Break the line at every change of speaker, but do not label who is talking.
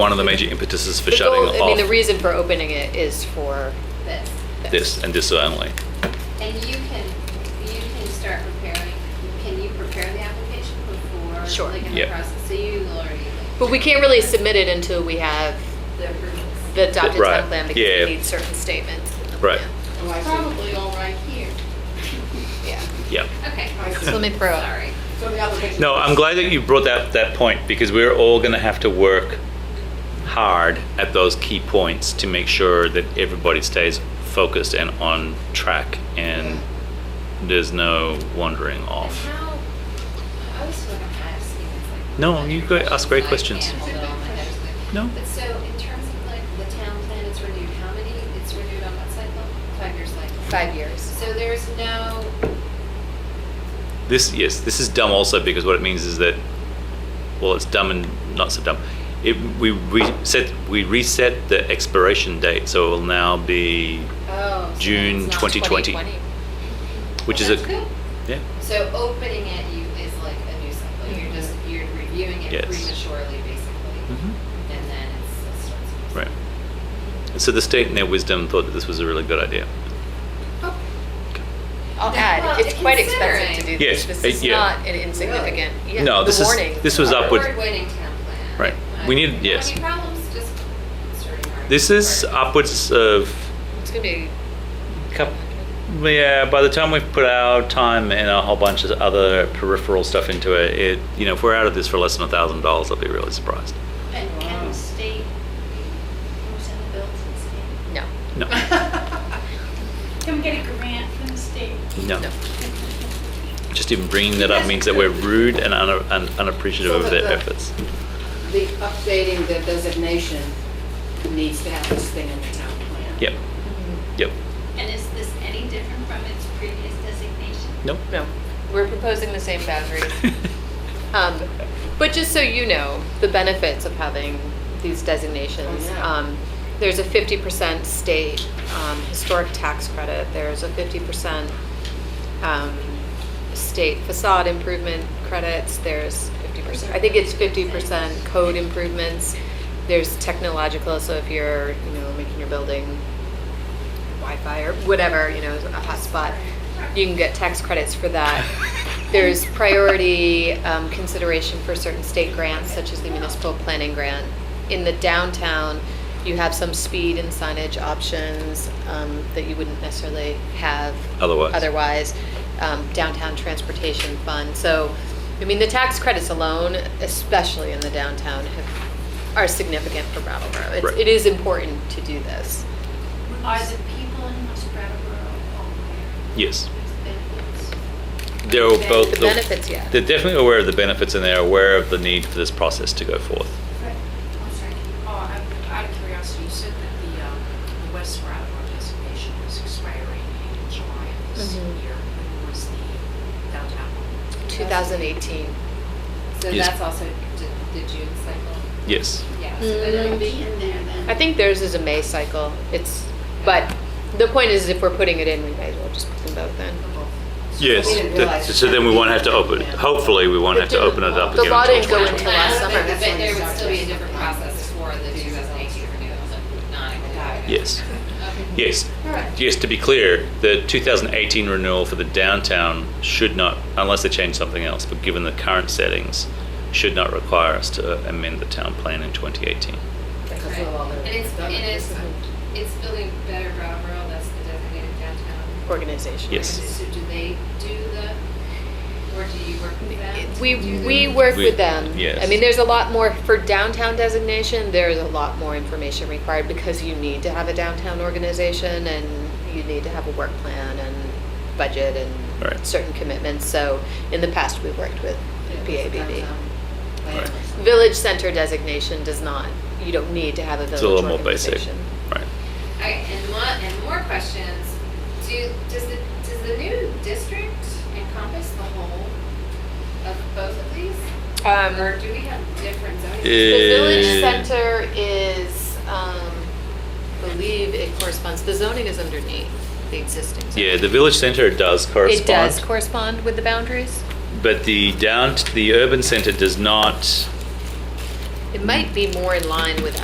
one of the major impetuses for
The
shutting
goal- I mean, the
off
reason for opening it is for
this.
this and this only.
And you can, you can start preparing, can you prepare the application before?
Sure.
Like in the
Yeah.
process, so you will already.
But we can't really submit it until we have
The approvals.
the adopted
Right,
town plan because
yeah.
we need certain statements. in the
Right.
plan.
Probably all right here.
Yeah.
Yeah.
Okay.
So let me throw it.
Sorry.
No, I'm glad that you brought that, that point because we're all going to have to work hard at those key points to make sure that everybody stays focused and on track and there's no wandering
And
off.
how, I was sort of asking, it's like.
No,
what
you go- ask great
I
questions.
can't hold on, I just like-
No.
But so in terms of like the town plan, it's renewed, how many, it's renewed on what cycle? Five-year cycle?
Five years.
So there's no,
This, yes, this is dumb also because what it means is that, well, it's dumb and not so dumb. It, we reset, we reset the expiration date, so it will now be,
oh. so
June
it's not
2020. which is a,
That's good.
yeah,
So opening it you is like a new cycle. You're just you're reviewing it
Yes.
prematurely, basically,
Mhm.
and then it's it starts. a new
right. And so the state in their wisdom thought that this was a really good idea.
cycle.
I'll
Yeah.
add,
Well,
it's quite expensive to
considering-
do
Yes,
this. This
uh,
is
yeah.
not an insignificant, yeah,
No,
the
this
warning.
is, this was upward.
Forward waiting town plan.
Right.
Uh,
We need-
if you have
yes.
Any problems? Just starting our-
This is
our-
upwards of,
It's gonna be.
Cup- yeah, by the time we've put our time and a whole bunch of other peripheral stuff into it, it, you know, if we're out of this for less than a thousand dollars, I'll be really surprised.
And can the state, who's in the bills and state?
No,
No,
Can we get a grant from the state?
no.
no.
Just even bringing that up means that we're rude and una- un- unappreciative of their efforts.
The updating the designation needs to have this thing in the town plan.
Yep, yep,
And is this any different from its previous designation?
nope.
No, we're proposing the same boundaries. Um, But just so you know, the benefits of having these designations.
Oh, yeah.
um, There's a 50% state um, historic tax credit, there's a 50% um, state facade improvement credits, there's 50%, I think it's 50% code improvements, there's technological, so if you're, you know, making your building Wi-Fi or whatever, you know, a hotspot, you can get tax credits for that. There's priority um, consideration for certain state grants, such as the municipal planning grant. In the downtown, you have some speed and signage options um, that you wouldn't necessarily have.
Otherwise.
Otherwise, Um, downtown transportation fund. So, I mean, the tax credits alone, especially in the downtown, have, are significant for Brattleboro. It's-
Right.
It is important to do this.
Are the people in West Brattleboro aware
Yes,
of these benefits?
they're both,
The benefits, yeah.
they're definitely aware of the benefits and they're aware of the need for this process to go forth.
I'm sorry. Oh, I'm- out of curiosity, you said that the, um, the West Brattleboro designation was expiring in July of this
Mhm.
year. When was the downtown?
2018.
So
Yes.
that's also the, the June cycle.
Yes,
Yeah. So
Mm-hmm.
that would be
in there then.
I think theirs is a May cycle. It's, but the point is if we're putting it in, we might as well just put them both in.
yes.
We didn't realize
That- So then we won't have to open, hopefully we won't have to open it up
The
again.
law
until
didn't go
2020.
into last
But
summer.
but there would still be a different process for the 2018 renewals and not included.
Yes.
Okay.
Yes.
All right.
Yes, to be clear, the 2018 renewal for the downtown should not, unless they change something else, but given the current settings, should not require us to amend the town plan in 2018.
Because of all the.
And it's, and it's, it's building better Brattleboro, that's the designated downtown.
Organization.
Yes.
So do they do the, or do you work with them?
We, we work
We-
with them.
yes.
I mean, there's a lot more, for downtown designation, there's a lot more information required because you need to have a downtown organization and you need to have a work plan and budget and
Right.
certain commitments. So in the past, we've worked with PABB.
Right.
Village center designation does not, you don't need to have a
It's
village
a little more basic.
organization.
Right.
Okay, and one, and more questions, do, does the, does the new district encompass the whole of both of these? Or do we have different zoning?
The village
Eh,
center is, um, I believe it corresponds, the zoning is underneath the existing. zone.
Yeah, the village center does correspond.
It does correspond with the boundaries?
But the down, the urban center does not
It might be more in line with